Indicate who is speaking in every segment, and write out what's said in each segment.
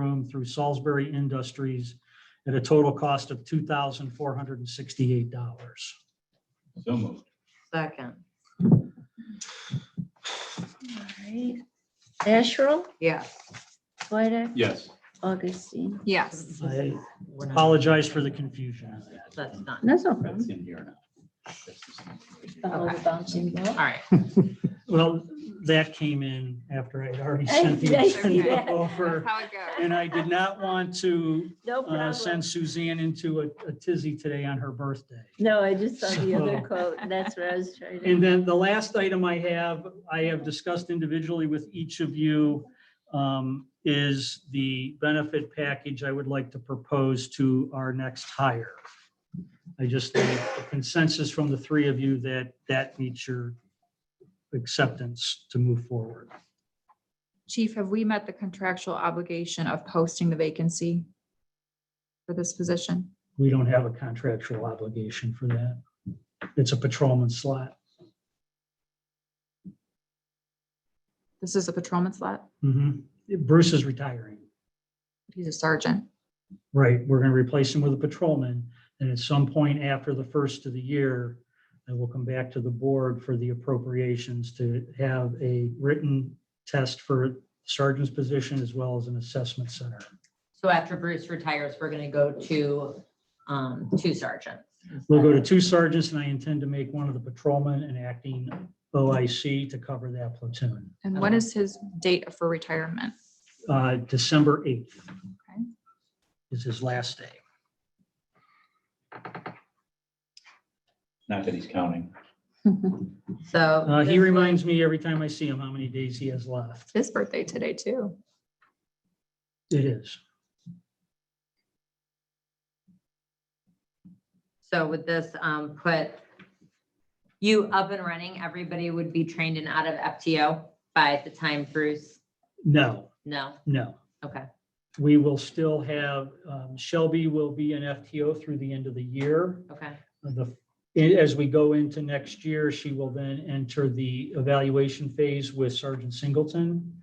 Speaker 1: system through Salisbury Industries at a total cost of two thousand four hundred and sixty-eight dollars.
Speaker 2: So moved.
Speaker 3: Second,
Speaker 4: Alright. Asherle,
Speaker 3: yes.
Speaker 4: Swedek,
Speaker 2: Yes.
Speaker 4: Augustine.
Speaker 5: Yes.
Speaker 1: I
Speaker 3: We're not-
Speaker 1: apologize for the confusion on that.
Speaker 3: That's not,
Speaker 4: That's no
Speaker 2: That's
Speaker 4: problem.
Speaker 2: in here now. That's just in here.
Speaker 4: Follow the bouncing
Speaker 3: all
Speaker 4: ball.
Speaker 6: Uh,
Speaker 3: right.
Speaker 1: Well, that came in after I'd already
Speaker 4: I-
Speaker 1: sent the
Speaker 4: I see
Speaker 1: agenda
Speaker 4: that.
Speaker 1: over.
Speaker 5: How it goes.
Speaker 1: And I did not want to
Speaker 4: No
Speaker 1: uh,
Speaker 4: problem.
Speaker 1: send Suzanne into a- a tizzy today on her birthday.
Speaker 4: No, I just saw the other
Speaker 1: So-
Speaker 4: quote. That's what I was trying to.
Speaker 1: And then the last item I have, I have discussed individually with each of you, um, is the benefit package I would like to propose to our next hire. I just need a consensus from the three of you that that meets your acceptance to move forward.
Speaker 5: Chief, have we met the contractual obligation of posting the vacancy for this position?
Speaker 1: We don't have a contractual obligation for that. It's a patrolman slot.
Speaker 5: This is a patrolman slot.
Speaker 1: Mhm. Bruce is retiring.
Speaker 5: He's a sergeant.
Speaker 1: Right, we're gonna replace him with a patrolman, and at some point after the first of the year, I will come back to the board for the appropriations to have a written test for sergeant's position as well as an assessment center.
Speaker 3: So after Bruce retires, we're gonna go to, um, two sergeants.
Speaker 1: We'll go to two sergeants, and I intend to make one of the patrolmen an acting OIC to cover that platoon.
Speaker 5: And when is his date for retirement?
Speaker 1: Uh, December eighth
Speaker 5: Okay.
Speaker 1: is his last day.
Speaker 2: Not that he's counting.
Speaker 3: So.
Speaker 1: Uh,
Speaker 3: this
Speaker 1: he
Speaker 3: will-
Speaker 1: reminds me every time I see him how many days he has left.
Speaker 5: His birthday today too.
Speaker 1: It is.
Speaker 3: So would this, um, put you up and running? Everybody would be trained and out of FTO by the time Bruce?
Speaker 1: No,
Speaker 3: No,
Speaker 1: no.
Speaker 3: okay,
Speaker 1: We will still have, um, Shelby will be an FTO through the end of the year.
Speaker 3: okay,
Speaker 1: The, as we go into next year, she will then enter the evaluation phase with Sergeant Singleton.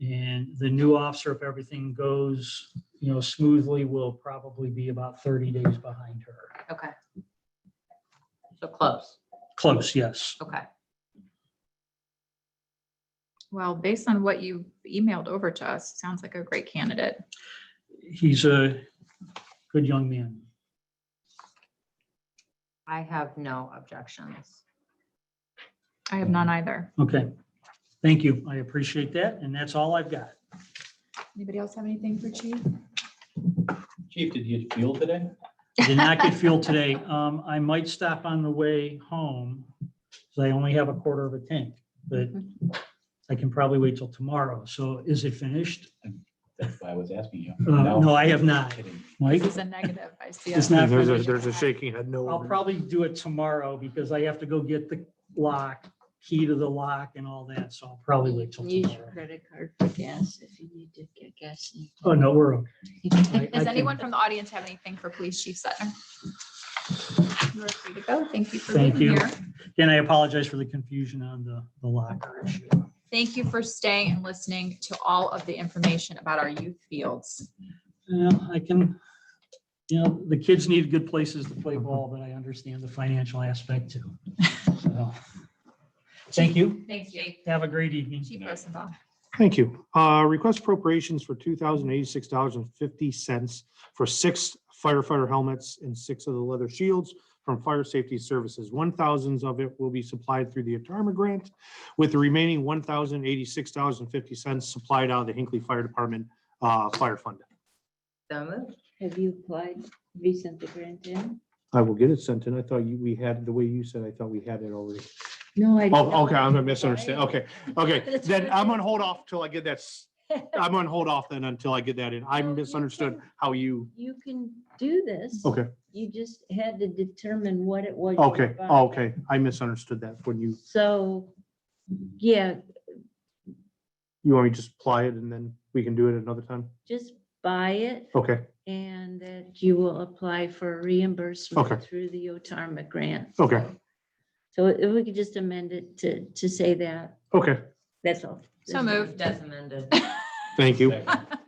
Speaker 1: And the new officer, if everything goes, you know, smoothly, will probably be about thirty days behind her.
Speaker 3: okay. So close,
Speaker 1: Close, yes.
Speaker 3: okay.
Speaker 5: Well, based on what you emailed over to us, sounds like a great candidate.
Speaker 1: He's a good young man.
Speaker 3: I have no objections.
Speaker 5: I have none
Speaker 1: Mm-hmm.
Speaker 5: either.
Speaker 1: Okay. Thank you. I appreciate that. And that's all I've got.
Speaker 5: Anybody else have anything for Chief?
Speaker 2: Chief, did you get fuel today?
Speaker 1: Did not get fuel today. Um, I might stop on the way home. So I only have a quarter of a tank, but I can probably wait till tomorrow. So is it finished?
Speaker 2: That's why I was asking you.
Speaker 1: Uh, No, I have not.
Speaker 2: Kidding.
Speaker 1: Mike?
Speaker 5: This is a negative. I see.
Speaker 1: It's
Speaker 5: it.
Speaker 1: not
Speaker 6: There's a,
Speaker 1: finished.
Speaker 6: there's a shaking head no.
Speaker 1: I'll probably do it tomorrow because I have to go get the lock, key to the lock and all that. So I'll probably wait till
Speaker 4: Use your
Speaker 1: tomorrow.
Speaker 4: credit card for gas if you need to get gas. in.
Speaker 1: Oh, no, we're, okay. I- I
Speaker 5: Does
Speaker 1: can-
Speaker 5: anyone from the audience have anything for Police Chief Sutton? You are free to go. Thank you for being
Speaker 1: Thank you.
Speaker 5: here.
Speaker 1: and I apologize for the confusion on the, the locker issue.
Speaker 5: Thank you for staying and listening to all of the information about our youth fields.
Speaker 1: Yeah, I can, you know, the kids need good places to play ball, but I understand the financial aspect too. So, Thank you.
Speaker 3: Thanks, Jake.
Speaker 1: Have a great evening.
Speaker 5: Chief Rosenbaum.
Speaker 6: Thank you. Uh, request appropriations for two thousand eighty-six dollars and fifty cents for six firefighter helmets and six of the leather shields from Fire Safety Services. One thousands of it will be supplied through the ATARMA grant, with the remaining one thousand eighty-six dollars and fifty cents supplied out of the Hinckley Fire Department, uh, fire fund.
Speaker 3: So moved.
Speaker 4: Have you applied? Have you sent the grant in?
Speaker 6: I will get it sent in. I thought you, we had, the way you said, I thought we had it already.
Speaker 4: No, I.
Speaker 6: Oh, okay, I'm gonna misunderstand. Okay, okay.
Speaker 4: That's
Speaker 6: Then
Speaker 4: what I
Speaker 6: I'm on
Speaker 4: said.
Speaker 6: hold off till I get that. s- I'm on hold off then until I get that in. I
Speaker 4: No, you
Speaker 6: misunderstood
Speaker 4: can-
Speaker 6: how you,
Speaker 4: You can do this.
Speaker 6: okay,
Speaker 4: You just had to determine what it was. you were
Speaker 6: okay,
Speaker 4: buying.
Speaker 6: okay. I misunderstood that when you,
Speaker 4: So, yeah,
Speaker 6: you want me to just apply it and then we can do it another time?
Speaker 4: just buy it
Speaker 6: Okay,
Speaker 4: and that you will apply for reimbursement
Speaker 6: Okay.
Speaker 4: through the OTARMA grant.
Speaker 6: okay,
Speaker 4: So if we could just amend it to, to say that,
Speaker 6: okay.
Speaker 4: that's all.
Speaker 5: So moved.
Speaker 3: That's amended.
Speaker 6: Thank you.
Speaker 2: Second.